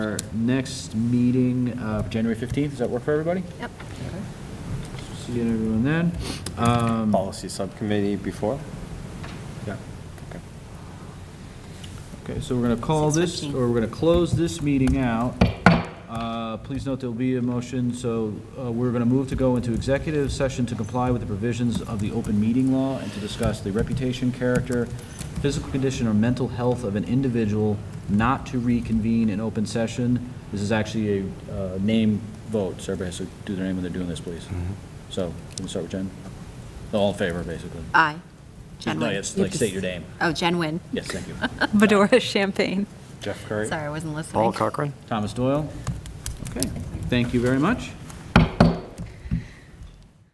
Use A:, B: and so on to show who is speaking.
A: Our next meeting, uh, January 15th, does that work for everybody?
B: Yep.
A: See you everyone then. Um,
C: policy subcommittee before?
A: yeah. Okay, so we're going to call this,
B: 6:15.
A: or we're going to close this meeting out. Uh, Please note there'll be a motion, so uh, we're going to move to go into executive session to comply with the provisions of the open meeting law and to discuss the reputation, character, physical condition, or mental health of an individual not to reconvene in open session. This is actually a uh, name vote, so everybody has to do their name when they're doing this, please.
C: Mm-hmm.
A: So, can we start with Jen? All in favor, basically.
B: Aye. Jen
A: No,
B: Wynn.
A: it's
B: You
A: like
B: have to
A: state
B: s-
A: your name.
B: Oh, Jen Wynn.
A: Yes, thank you.
D: Medora Champagne.
C: Jeff Curry?
B: Sorry, I wasn't listening.
E: Paul Cochran?
A: Thomas Doyle. Okay, thank you very much.